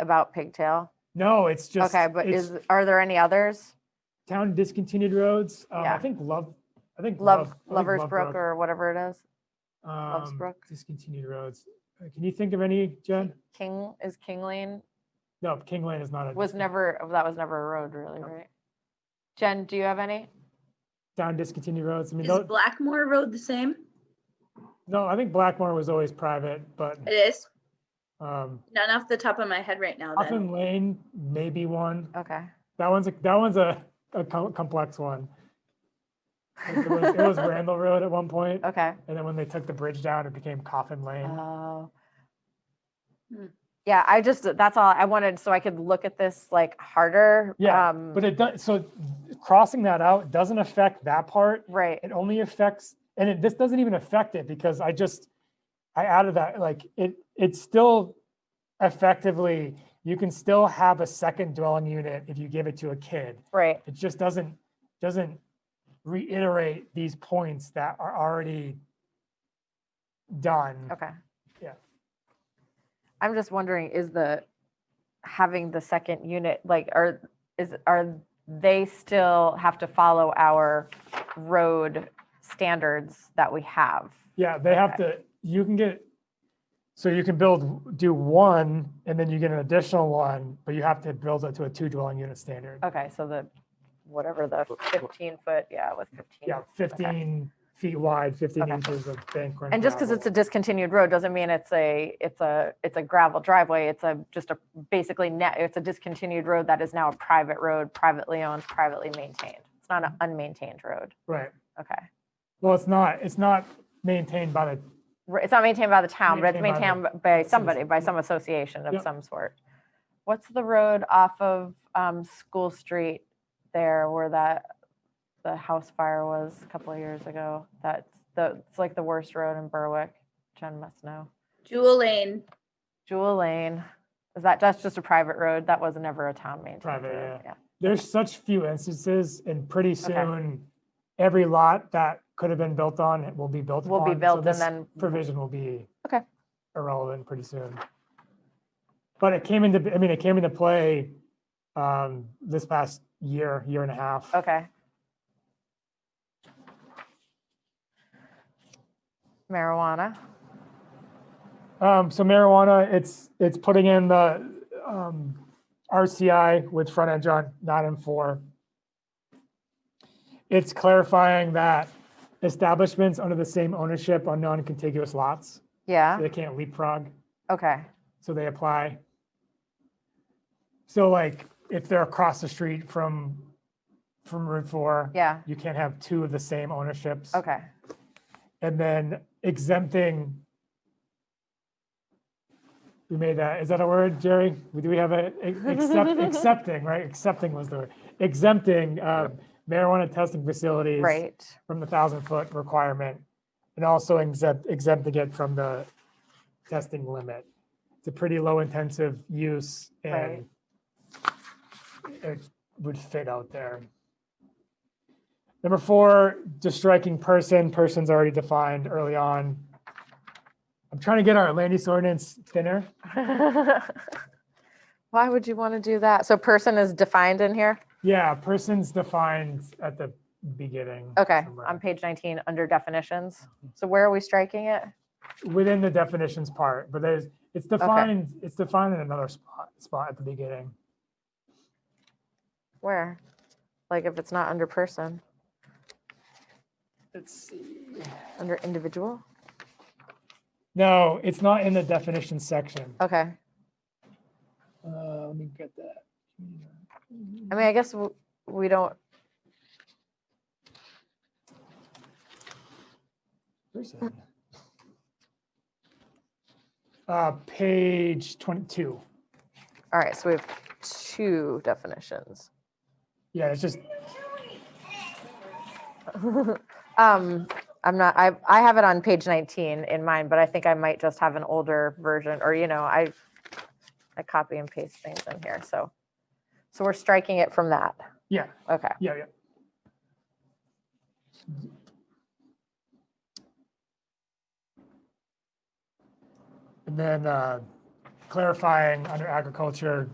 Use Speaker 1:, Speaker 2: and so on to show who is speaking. Speaker 1: about Pigtail?
Speaker 2: No, it's just.
Speaker 1: Okay, but
Speaker 2: it's
Speaker 1: is, are there any others?
Speaker 2: Town discontinued roads. Um, I
Speaker 1: Yeah.
Speaker 2: think Love, I think.
Speaker 1: Love,
Speaker 2: I think
Speaker 1: Lover's
Speaker 2: Love
Speaker 1: Brook or whatever it is?
Speaker 2: um,
Speaker 1: Brook.
Speaker 2: Discontinued roads. Uh, Can you think of any, Jen?
Speaker 1: King, is King Lane,
Speaker 2: No, King Lane is not a.
Speaker 1: was
Speaker 2: discon-
Speaker 1: never, that was never a road really, right? Jen, do you have any?
Speaker 2: Town discontinued roads. I mean,
Speaker 3: Is
Speaker 2: tho-
Speaker 3: Blackmore Road the same?
Speaker 2: no, I think Blackmore was always private, but,
Speaker 3: It is.
Speaker 2: um,
Speaker 3: Not off the top of my head right now then.
Speaker 2: Coffin Lane, maybe one.
Speaker 1: Okay.
Speaker 2: That one's, a that one's a, a co- complex one. It was it was Randall Road at one point,
Speaker 1: Okay.
Speaker 2: and then when they took the bridge down, it became Coffin Lane.
Speaker 1: Oh.
Speaker 3: Hmm.
Speaker 1: Yeah, I just, that's all I wanted, so I could look at this like harder.
Speaker 2: Yeah,
Speaker 1: um,
Speaker 2: But it does, so crossing that out doesn't affect that part.
Speaker 1: Right,
Speaker 2: It only affects, and it, this doesn't even affect it because I just, I added that, like, it, it's still effectively, you can still have a second dwelling unit if you give it to a kid.
Speaker 1: right,
Speaker 2: It just doesn't, doesn't reiterate these points that are already done.
Speaker 1: okay.
Speaker 2: Yeah.
Speaker 1: I'm just wondering, is the, having the second unit, like, are, is, are they still have to follow our road standards that we have?
Speaker 2: Yeah, they have to, you can get, so you can build, do one, and then you get an additional one, but you have to build it to a two dwelling unit standard.
Speaker 1: Okay, so the, whatever the fifteen foot, yeah, with fifteen.
Speaker 2: Yeah, fifteen feet wide, fifteen inches of bank. run
Speaker 1: And just because it's a
Speaker 2: gravel.
Speaker 1: discontinued road doesn't mean it's a, it's a, it's a gravel driveway. It's a, just a, basically net, it's a discontinued road that is now a private road, privately owned, privately maintained. It's not an unmaintained road.
Speaker 2: Right,
Speaker 1: Okay.
Speaker 2: well, it's not, it's not maintained by the,
Speaker 1: Right, It's not maintained by the town, but it's
Speaker 2: Maintained
Speaker 1: maintained by
Speaker 2: some
Speaker 1: somebody, by
Speaker 2: asso-
Speaker 1: some association
Speaker 2: Yep.
Speaker 1: of some sort. What's the road off of um, School Street there where that, the house fire was a couple of years ago? That's the, it's like the worst road in Berwick. Jen must know.
Speaker 3: Jewel Lane,
Speaker 1: Jewel Lane. Is that, that's just a private road? That was never a town maintained
Speaker 2: Private,
Speaker 1: road. Yeah.
Speaker 2: there's such few instances, and pretty
Speaker 1: Okay.
Speaker 2: soon, every lot that could have been built on it will be built
Speaker 1: Will be
Speaker 2: upon, so
Speaker 1: built
Speaker 2: this
Speaker 1: and then,
Speaker 2: provision will be.
Speaker 1: Okay.
Speaker 2: Irrelevant pretty soon. But it came into, I mean, it came into play um, this past year, year and a half.
Speaker 1: okay. Marijuana.
Speaker 2: Um, so marijuana, it's, it's putting in the um, RCI with front edge on nine and four. It's clarifying that establishments under the same ownership on non-contiguous lots, so
Speaker 1: Yeah.
Speaker 2: they can't leapfrog.
Speaker 1: Okay.
Speaker 2: So they apply. So like, if they're across the street from, from Route Four.
Speaker 1: Yeah.
Speaker 2: You can't have two of the same ownerships.
Speaker 1: Okay.
Speaker 2: And then exempting. We made that, is that a word, Jerry? Do we have a, e- accept, accepting, right? Accepting was the word. Exempting um, marijuana testing facilities.
Speaker 1: Right.
Speaker 2: From the thousand foot requirement and also exempt, exempting it from the testing limit. It's a pretty low intensive use and
Speaker 1: Right.
Speaker 2: it would fit out there. Number four, just striking person, person's already defined early on. I'm trying to get our land use ordinance thinner.
Speaker 1: Why would you want to do that? So person is defined in here?
Speaker 2: Yeah, person's defined at the beginning.
Speaker 1: Okay,
Speaker 2: somewhere.
Speaker 1: on page 19, under definitions. So where are we striking it?
Speaker 2: Within the definitions part, but there's, it's defined, it's defined in another spot, spot at the beginning.
Speaker 1: Where? Like if it's not under person,
Speaker 2: Let's see.
Speaker 1: under individual?
Speaker 2: No, it's not in the definition section.
Speaker 1: Okay.
Speaker 2: Uh, let me get that.
Speaker 1: I mean, I guess w- we don't,
Speaker 2: Person. Uh, page twenty-two.
Speaker 1: all right, so we have two definitions.
Speaker 2: Yeah, it's just,
Speaker 1: Um, I'm not, I, I have it on page 19 in mine, but I think I might just have an older version or, you know, I, I copy and paste things in here, so. So we're striking it from that.
Speaker 2: yeah,
Speaker 1: Okay,
Speaker 2: yeah, yeah. And then, uh, clarifying under agriculture,